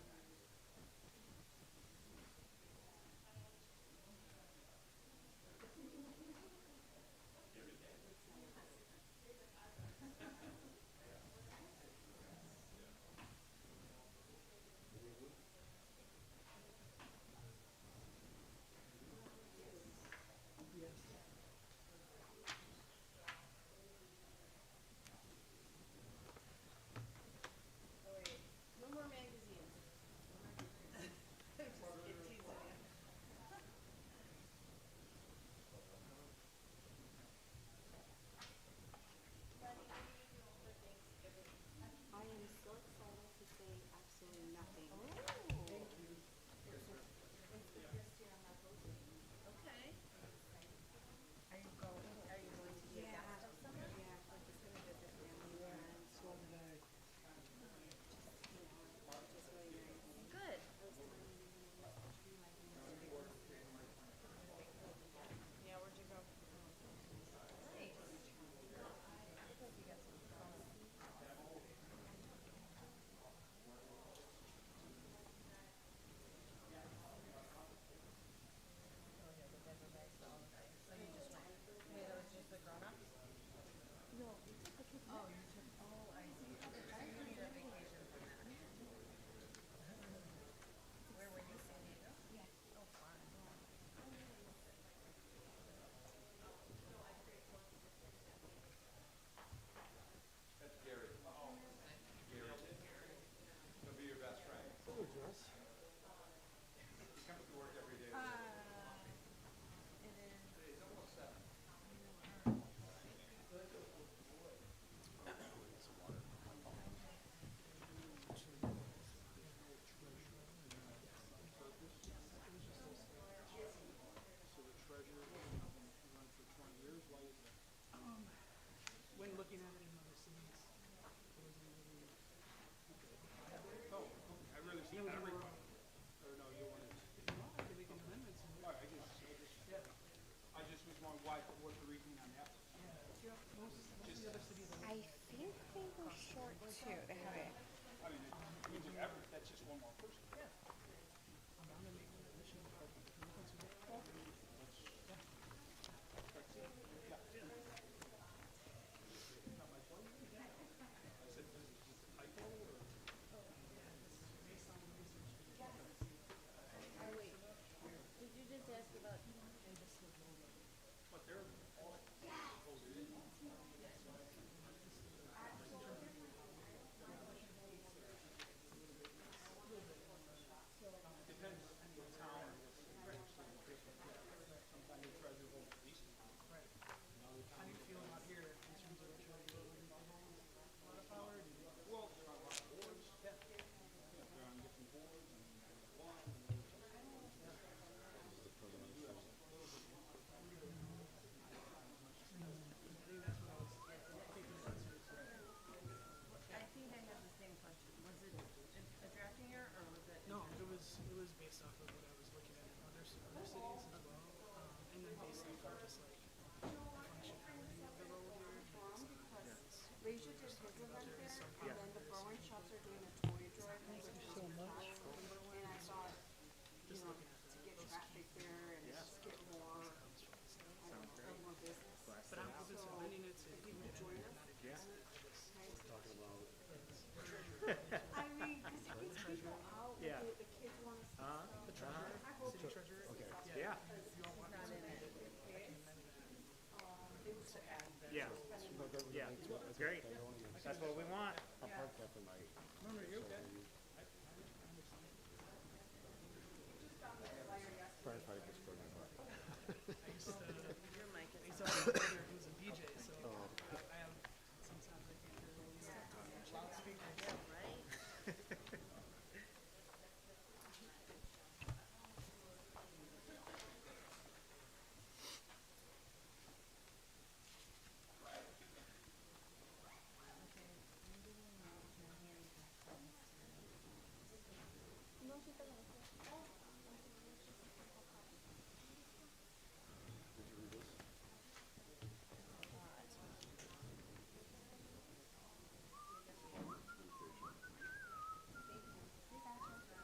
know, you were, Or no, you wanted, wanted, we can amend it some all right, I just, I just, I just was wondering why, what the reasoning on that was. I think they were short too to have it. I mean, it means an effort, that's just one more person. Did you just ask about? How do you feel about here in terms of what you're doing? A lot of power, do you? I think I have the same question. Was it a drafting error or was it? No, it was, it was based off of what I was looking at in other, s- other cities as well, um, and then based off of just like the functionality of the road here. Leisure did his event there, and then the Bowen shops are doing a toy drive, which is so much. And I thought, you know, to get traffic there and just get more, I don't know, more business. But I'm open to amending it to include it in there, not a I mean, cause it gets people out, like, the the kids wanna see The stuff. treasurer, city treasurer. Okay. Yeah, If you all want me to amend it, I can amend it. yeah, yeah, great. That's what we want.